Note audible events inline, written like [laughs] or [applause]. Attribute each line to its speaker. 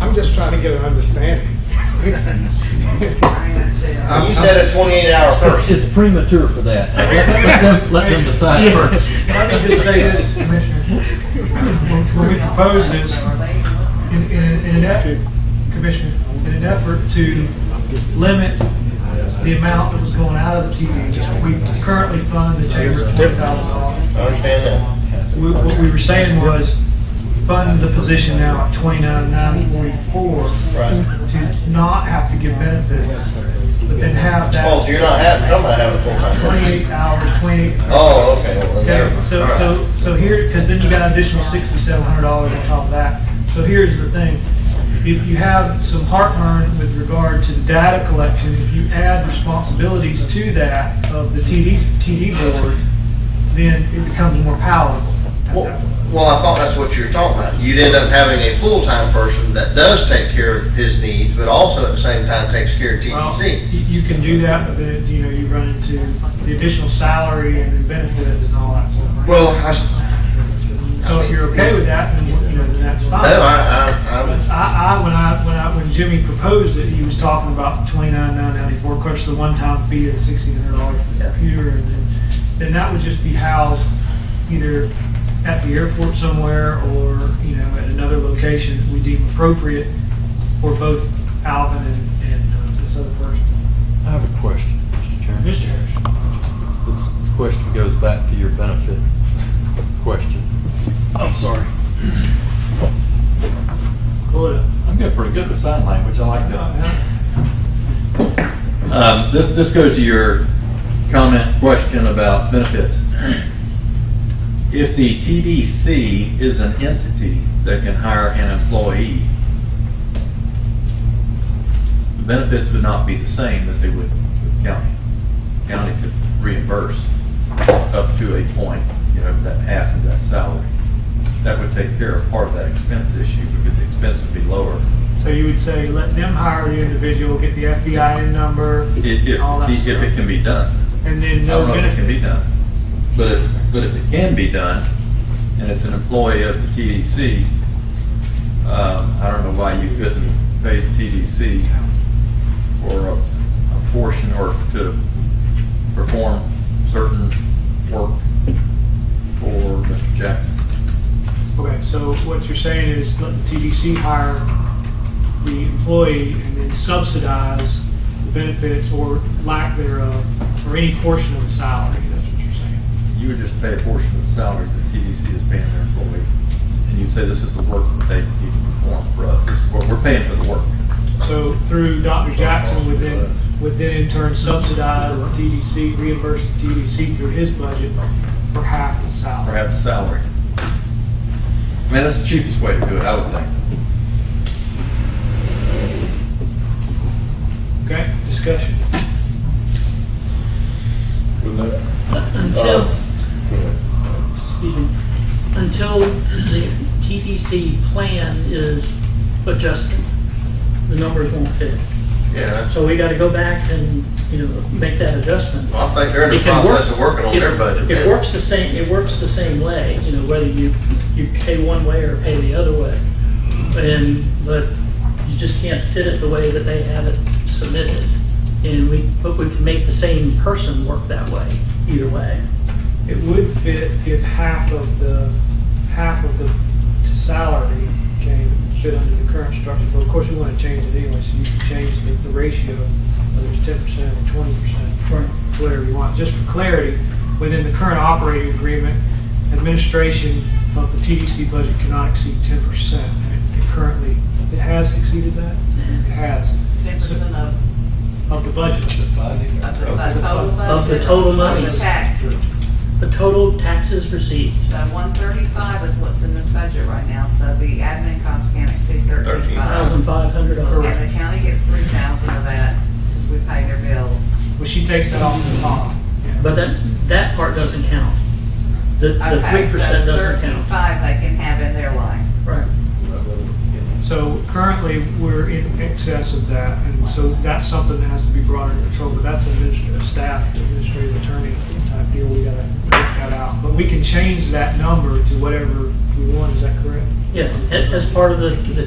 Speaker 1: I'm just trying to get an understanding.
Speaker 2: You said a twenty-eight hour
Speaker 3: It's,
Speaker 2: person.
Speaker 3: it's premature for
Speaker 4: [laughs]
Speaker 3: that. Let let them, let them decide first.
Speaker 4: Let me just say this, Commissioner. When we proposed this, in, in, in an effort, Commissioner, in an effort to limit the amount that was going out of the TV, we currently fund the chamber at twenty thousand
Speaker 2: I understand that.
Speaker 4: we- what we were saying was fund the position now at twenty-nine, nine forty-four
Speaker 2: Right.
Speaker 4: to not have to give benefits, but then have
Speaker 2: Oh, so you're
Speaker 4: that
Speaker 2: not having, I'm not having a full-time person.
Speaker 4: twenty-eight hours, twenty.
Speaker 2: Oh, okay. well, then
Speaker 4: Okay,
Speaker 2: never mind.
Speaker 4: so,
Speaker 2: All right.
Speaker 4: so, so here, because then you got an additional sixty-seven hundred dollars on top of that. So here's the thing, if you have some heartburn with regard to the data collection, if you add responsibilities to that of the TD, TD board, then it becomes more palatable. at
Speaker 2: Well,
Speaker 4: that point.
Speaker 2: well, I thought that's what you were talking about. You'd end up having a full-time person that does take care of his needs, but also at the same time takes care of
Speaker 4: Well,
Speaker 2: TDC.
Speaker 4: You you can do that, but then, you know, you run into the additional salary and the benefits and all that sort of thing.
Speaker 2: Well, I, s-
Speaker 4: So if you're okay with that, then, you know, then that's
Speaker 2: no,
Speaker 4: fine.
Speaker 2: I, I,
Speaker 4: But
Speaker 2: I'm,
Speaker 4: I, I, when I, when I, when Jimmy proposed it, he was talking about twenty-nine, nine ninety-four, of course, the one-time fee of sixteen hundred dollars for the computer, and then, then that would just be housed either at the airport somewhere, or, you know, at another location that we deem appropriate for both Alvin and, and uh, this other person.
Speaker 5: I have a question, Mr. Chairman.
Speaker 4: Mr. Harris.
Speaker 5: This question goes back to your benefit question. I'm sorry.
Speaker 4: Pull it up.
Speaker 5: I'm getting pretty good with sign language, I like that.
Speaker 4: Uh-huh.
Speaker 5: Um, This, this goes to your comment, question about benefits. If the TDC is an entity that can hire an employee, the benefits would not be the same as they would with county. County could reimburse up to a point, you know, that half of that salary. That would take care of part of that expense issue because the expense would be lower.
Speaker 4: So you would say, let them hire the individual, get the FEIN number,
Speaker 5: i- If,
Speaker 4: All that
Speaker 5: if
Speaker 4: stuff.
Speaker 5: it can be done.
Speaker 4: and then
Speaker 5: I
Speaker 4: no
Speaker 5: don't know if it can
Speaker 4: benefit.
Speaker 5: be done, but if, but if it can be done, and it's an employee of the TDC, um, I don't know why you couldn't pay the TDC for a, a portion or to perform certain work for Mr. Jackson.
Speaker 4: Okay, so what you're saying is let the TDC hire the employee and then subsidize the benefits or lack thereof, or any portion of the salary, that's what you're saying.
Speaker 5: You would just pay a portion of the salary that TDC is paying their employee, and you'd say this is the work that they need to perform for us, this is what, we're paying for the work.
Speaker 4: So through Dr. Jackson would then, would then in turn subsidize the TDC, reimburse the TDC through his budget for half the
Speaker 5: or
Speaker 4: salary.
Speaker 5: have a salary. I mean, that's the cheapest way to do it, I would think.
Speaker 4: Okay, discussion.
Speaker 6: Until,
Speaker 2: Um,
Speaker 6: excuse me, until the TDC plan is adjusted, the numbers won't fit.
Speaker 2: yeah,
Speaker 6: So we gotta go back and, you know, make that adjustment.
Speaker 2: well, I think they're in the
Speaker 6: It can work-
Speaker 2: process of working on
Speaker 6: it-
Speaker 2: their budget.
Speaker 6: It
Speaker 2: yeah.
Speaker 6: works the same, it works the same way, you know, whether you, you pay one way or pay the other way. And, but you just can't fit it the way that they have it submitted. And we, but we can make the same person work that way, either way.
Speaker 4: It would fit if half of the, half of the salary came, fit under the current structure, but of course, we want to change it anyway, so you can change the, the ratio, whether it's ten percent or twenty percent,
Speaker 6: Right.
Speaker 4: whatever you want, just for clarity, within the current operating agreement, administration of the TDC budget cannot exceed ten percent, and it currently, it has exceeded that?
Speaker 6: Mm-hmm.
Speaker 4: It has,
Speaker 7: Ten percent of,
Speaker 4: of the budget.
Speaker 7: of the bu- total budget.
Speaker 6: Of the total
Speaker 7: money,
Speaker 6: monies.
Speaker 7: Taxes.
Speaker 6: The total taxes received.
Speaker 7: So one thirty-five is what's in this budget right now, so the admin costs can't exceed thirteen-five.
Speaker 6: Thousand five hundred dollars.
Speaker 7: And the county gets three thousand of that, because we pay their bills.
Speaker 4: Well, she takes that off the top.
Speaker 6: But that, that part doesn't count. The, the three
Speaker 7: Okay, so
Speaker 6: percent doesn't count.
Speaker 7: thirteen-five they can have in their line.
Speaker 6: Right.
Speaker 4: So currently, we're in excess of that, and so that's something that has to be brought under control, but that's administrative staff, administrative attorney type deal, we gotta work that out. But we can change that number to whatever we want, is that correct?
Speaker 6: Yeah, a- as part of the, the